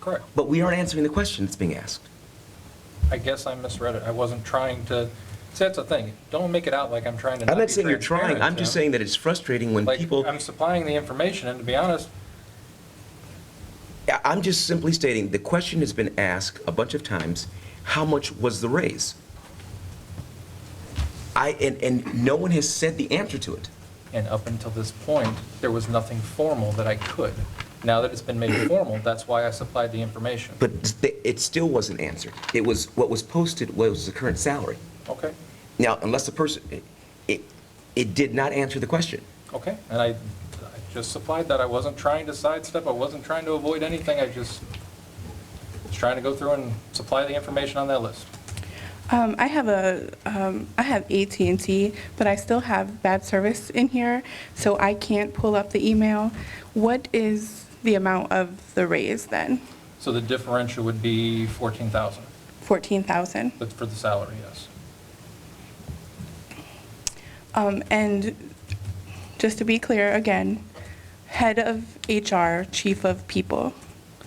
Correct. But we aren't answering the question that's being asked. I guess I misread it. I wasn't trying to, see, that's the thing. Don't make it out like I'm trying to I'm be not saying you're trying, transparent, I'm just you know? saying that it's frustrating when people, Like, I'm supplying the information, and to be honest, I- I'm just simply stating, the question has been asked a bunch of times, how much was the raise? I, and, and no one has said the answer to it. and up until this point, there was nothing formal that I could. Now that it's been made formal, that's why I supplied the information. But th- it still wasn't answered. It was, what was posted was the current salary. Okay, Now, unless the person, it- it, it did not answer the question. okay, and I, I just supplied that. I wasn't trying to sidestep, I wasn't trying to avoid anything, I just was trying to go through and supply the information on that list. Um, I have a, um, I have AT&T, but I still have bad service in here, so I can't pull up the email. What is the amount of the raise then? So the differential would be 14,000, 14,000? but for the salary, yes. Um, and just to be clear again, head of HR, chief of people,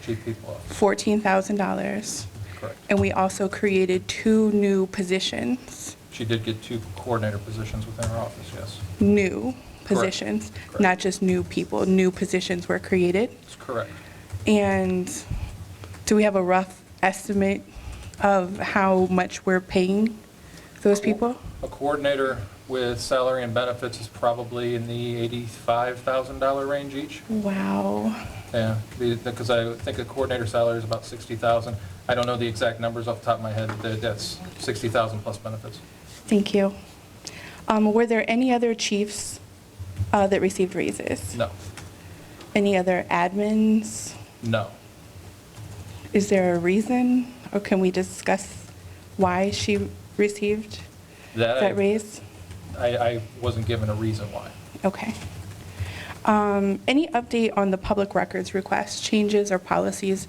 Chief people officer, $14,000. correct. And we also created two new positions, She did get two coordinator positions within her office, yes. new positions, Correct. not just new people, new positions were created. That's correct. And do we have a rough estimate of how much we're paying those people? A coordinator with salary and benefits is probably in the $85,000 range each. Wow. Yeah, because I think a coordinator salary is about 60,000. I don't know the exact numbers off the top of my head, but that's 60,000 plus benefits. Thank you. Um, Were there any other chiefs uh, that received raises? No, Any other admins? no. Is there a reason? Or can we discuss why she received That that I- raise? I I wasn't given a reason why. Okay. Um, Any update on the public records request, changes or policies?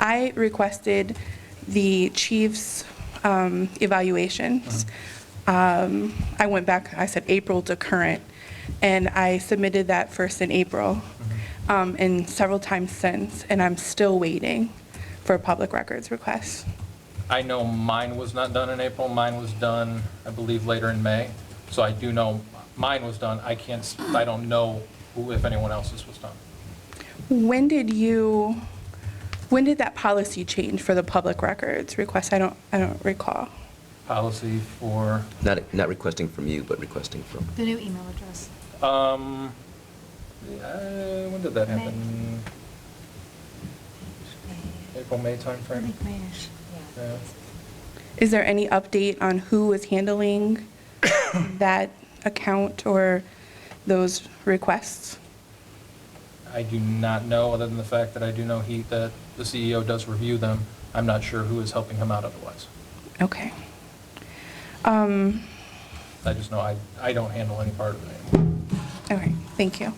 I requested the chief's um, evaluations. Um, I went back, I said April to current, and I submitted that first in April, um, and several times since, and I'm still waiting for a public records request. I know mine was not done in April, mine was done, I believe, later in May. So I do know mine was done, I can't, s- I don't know who- if anyone else's was done. When did you, when did that policy change for the public records request? I don't, I don't recall. Policy for, Not, not requesting from you, but requesting from. The new email address. um, uh, when did that happen? April, May I timeframe? think Mayish. Yeah. Is there any update on who is handling that account or those requests? I do not know, other than the fact that I do know he, that the CEO does review them. I'm not sure who is helping him out otherwise. Okay. Um, I just know I, I don't handle any part of it anymore. all right, thank you.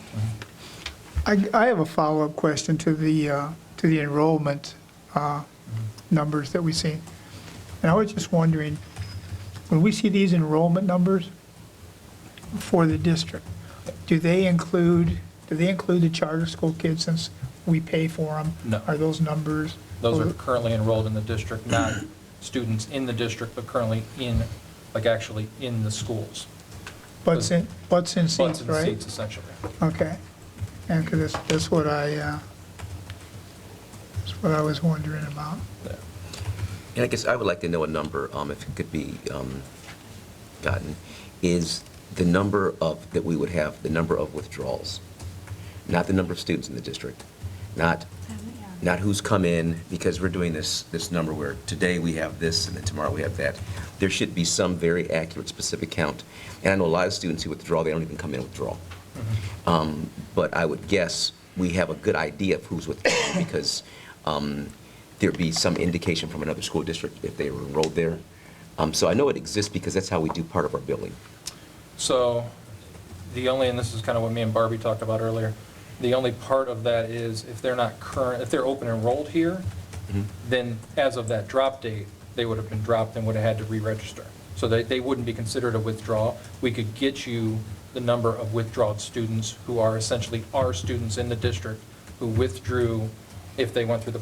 I, I have a follow-up question to the, uh, to the enrollment uh, numbers that we've seen. And I was just wondering, when we see these enrollment numbers for the district, do they include, do they include the charter school kids since we pay for them? No. Are those numbers? Those are currently enrolled in the district, not students in the district, but currently in, like actually in the schools. Butts in, butts in Butts seats, in right? seats essentially. Okay. And 'cause that's, that's what I, uh, that's what I was wondering about. Yeah. And I guess I would like to know a number, um, if it could be um, gotten, is the number of, that we would have, the number of withdrawals, not the number of students in the district, not, not who's come in, because we're doing this, this number where today we have this, and then tomorrow we have that. There should be some very accurate, specific count. And I know a lot of students who withdraw, they don't even come in and withdraw. Mm-hmm. Um, But I would guess we have a good idea of who's withdrawing because um, there'd be some indication from another school district if they were enrolled there. Um, So I know it exists because that's how we do part of our billing. So the only, and this is kind of what me and Barbie talked about earlier, the only part of that is if they're not current, if they're open enrolled here, then as of that drop date, they would have been dropped and would have had to re-register. So they, they wouldn't be considered a withdrawal. We could get you the number of withdrawn students who are essentially our students in the district who withdrew if they went through the